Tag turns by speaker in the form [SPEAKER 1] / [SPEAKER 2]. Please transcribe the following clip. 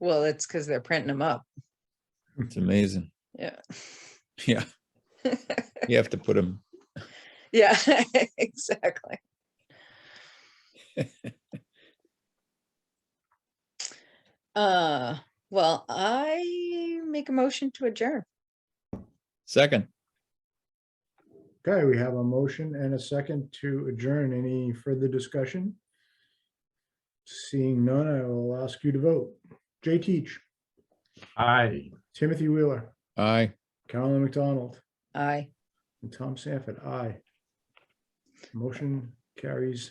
[SPEAKER 1] Well, it's because they're printing them up.
[SPEAKER 2] It's amazing.
[SPEAKER 1] Yeah.
[SPEAKER 2] Yeah. You have to put them,
[SPEAKER 1] Yeah, exactly. Uh, well, I make a motion to adjourn.
[SPEAKER 2] second,
[SPEAKER 3] Okay, we have a motion and a second to adjourn. Any further discussion? Seeing none, I will ask you to vote. Jay Teach,
[SPEAKER 4] Aye.
[SPEAKER 3] Timothy Wheeler,
[SPEAKER 2] aye.
[SPEAKER 3] Carolyn McDonald,
[SPEAKER 1] Aye.
[SPEAKER 3] and Tom Sanford, aye. Motion carries